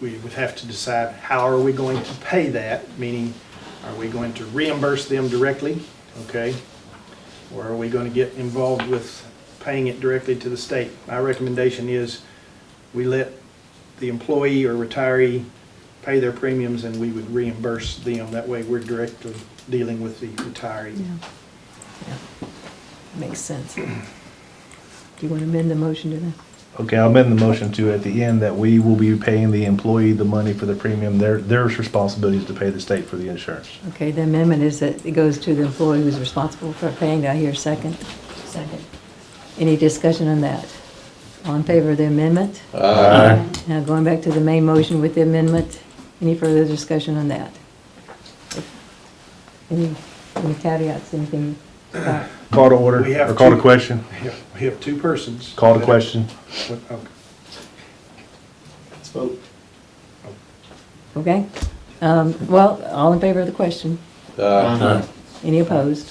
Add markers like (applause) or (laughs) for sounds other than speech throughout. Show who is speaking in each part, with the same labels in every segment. Speaker 1: we would have to decide how are we going to pay that, meaning are we going to reimburse them directly, okay? Or are we going to get involved with paying it directly to the state? My recommendation is we let the employee or retiree pay their premiums and we would reimburse them. That way we're directly dealing with the retiree.
Speaker 2: Yeah. Yeah. Makes sense. Do you want to amend the motion to that?
Speaker 3: Okay, I'll amend the motion to at the end that we will be paying the employee the money for the premium. Their, their responsibility is to pay the state for the insurance.
Speaker 2: Okay, the amendment is that it goes to the employee who's responsible for paying. Do I hear a second? Second. Any discussion on that? All in favor of the amendment? Aye. Now, going back to the main motion with the amendment, any further discussion on that? Any any caveats, anything? about-
Speaker 3: Call to order,
Speaker 1: We have
Speaker 3: or call to
Speaker 1: two.
Speaker 3: question,
Speaker 1: We have- We have two persons.
Speaker 3: call to question.
Speaker 1: What- okay.
Speaker 4: Let's vote.
Speaker 2: Okay? Um, Well, all in favor of the question? Any opposed?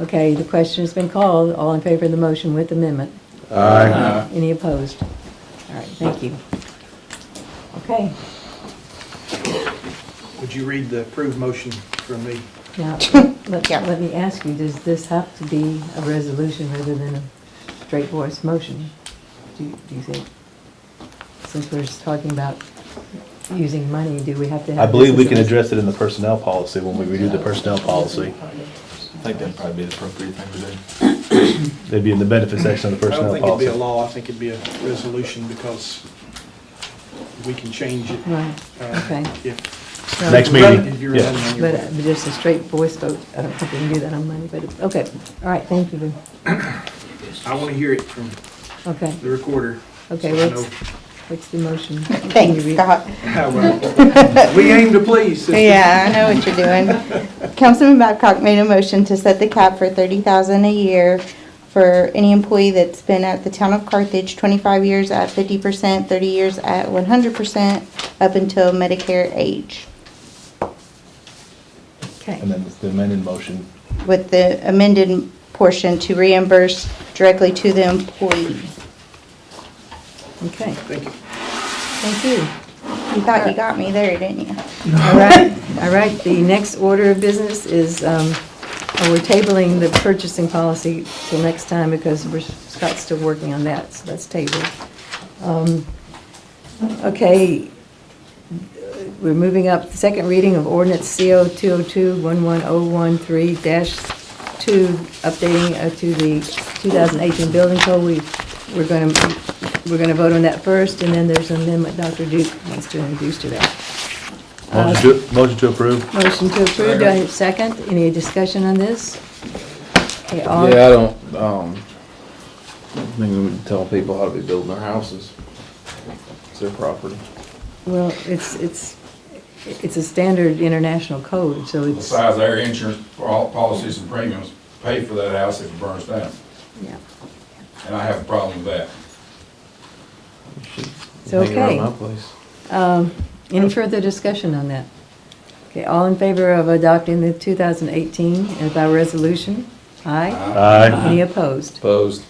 Speaker 2: Okay, the question has been called. All in favor of the motion with amendment? Aye. Any opposed? All right, thank you. Okay,
Speaker 1: Would you read the approved motion for me?
Speaker 2: now, let let me ask you, does this have to be a resolution rather than a straight voice motion? Do you do you think? Since we're just talking about using money, do we have to have?
Speaker 3: I believe
Speaker 2: this
Speaker 3: we
Speaker 2: as a
Speaker 3: can
Speaker 2: res-
Speaker 3: address it in the personnel policy when we redo the personnel policy.
Speaker 4: I think that'd probably be the appropriate thing to do.
Speaker 3: It'd be in the benefit section of the
Speaker 1: I don't
Speaker 3: personnel
Speaker 1: think it'd be a
Speaker 3: policy.
Speaker 1: law, I think it'd be a resolution because we can change it.
Speaker 2: Right,
Speaker 1: uh,
Speaker 2: okay.
Speaker 1: If
Speaker 2: No,
Speaker 3: Next
Speaker 1: you're running-
Speaker 3: meeting,
Speaker 1: if you're
Speaker 3: yeah.
Speaker 1: running on your
Speaker 2: But
Speaker 1: way.
Speaker 2: uh, just a straight voice vote, I don't think we can do that on Monday, but, okay, all right, thank you. uh,
Speaker 1: I want to hear it from
Speaker 2: Okay,
Speaker 1: the recorder. (laughs)
Speaker 2: okay,
Speaker 1: so I
Speaker 2: what's, what's the motion?
Speaker 5: Thanks, Scott.
Speaker 1: know. uh, We aim to please, sister.
Speaker 5: Yeah, I know what you're doing. Councilman Babcock made a motion to set the cap for thirty thousand a year for any employee that's been at the town of Carthage twenty-five years at fifty percent, thirty years at one hundred percent, up until Medicare age.
Speaker 2: Okay,
Speaker 3: And then the amended motion.
Speaker 5: With the amended portion to reimburse directly to the employee.
Speaker 2: okay,
Speaker 1: Thank you.
Speaker 2: thank you.
Speaker 5: You thought you got me there, didn't you?
Speaker 2: All right, all right, the next order of business is, um, oh, we're tabling the purchasing policy till next time because we're, Scott's still working on that, so that's tabled. Um, Okay, we're moving up, second reading of ordinance CO 202-11013-2, updating uh, to the 2018 building code. We, we're going to, we're going to vote on that first, and then there's an amendment Dr. Duke wants to introduce to that.
Speaker 3: Motion to, motion to approve.
Speaker 2: Motion to approve, do I have a second? Any discussion on this? Okay, all,
Speaker 6: Yeah, I don't, um, I don't think we would tell people how to be building their houses. It's their property.
Speaker 2: well, it's, it's, it's a standard international code, so it's,
Speaker 7: Besides, their insurance pol- policies and premiums pay for that house if it burns down,
Speaker 2: yeah.
Speaker 7: and I have a problem with that.
Speaker 6: You should
Speaker 2: It's
Speaker 6: hang around
Speaker 2: okay.
Speaker 6: my place.
Speaker 2: Um, Any further discussion on that? Okay, all in favor of adopting the 2018 by resolution? Aye?
Speaker 3: Aye.
Speaker 2: Any opposed?
Speaker 6: Opposed?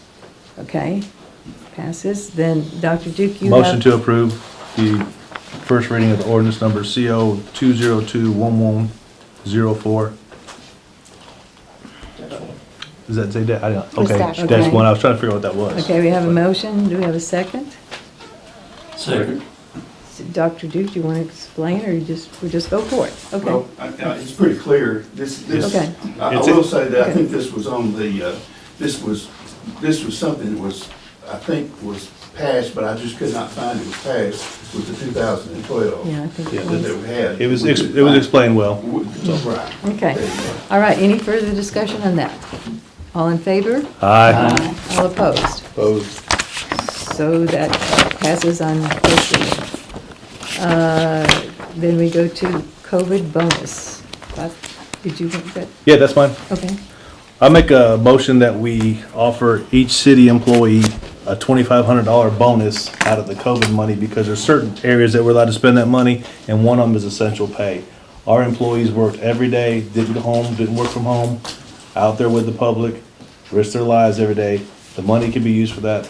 Speaker 2: Okay, passes. Then, Dr. Duke, you have...
Speaker 3: Motion to approve the first reading of the ordinance number CO two zero two one one zero four. Does that say that? I don't,
Speaker 5: It's
Speaker 3: okay,
Speaker 5: dash
Speaker 3: dash
Speaker 2: one.
Speaker 3: one, I was trying to figure out what that was.
Speaker 2: Okay, we have a motion, do we have a second?
Speaker 4: Second.
Speaker 2: So, Dr. Duke, do you want to explain, or you just, we just go for it? Okay,
Speaker 8: Well, I- I- it's pretty clear, this, this,
Speaker 2: Okay.
Speaker 8: I I
Speaker 3: It's a-
Speaker 8: will say that I
Speaker 2: Okay.
Speaker 8: think this was on the, uh, this was, this was something that was, I think was passed, but I just could not find it was passed with the 2012.
Speaker 2: yeah, I think
Speaker 3: Yeah,
Speaker 2: it
Speaker 8: That
Speaker 2: was.
Speaker 8: they had.
Speaker 3: It was,
Speaker 8: We
Speaker 3: ex-
Speaker 8: could
Speaker 3: it was
Speaker 8: find-
Speaker 3: explained well.
Speaker 8: we- Right.
Speaker 2: Okay, all right, any further discussion on that? All in favor?
Speaker 3: Aye.
Speaker 2: All opposed?
Speaker 6: Opposed?
Speaker 2: So that passes on first reading. Uh, Then we go to COVID bonus. Bob, Did you want that?
Speaker 3: Yeah, that's fine.
Speaker 2: Okay,
Speaker 3: I make a motion that we offer each city employee a twenty-five hundred dollar bonus out of the COVID money because there's certain areas that we're allowed to spend that money, and one of them is essential pay. Our employees worked every day, didn't go home, didn't work from home, out there with the public, risked their lives every day. The money can be used for that.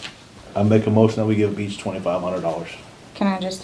Speaker 3: I make a motion that we give each twenty-five hundred dollars.
Speaker 5: Can I just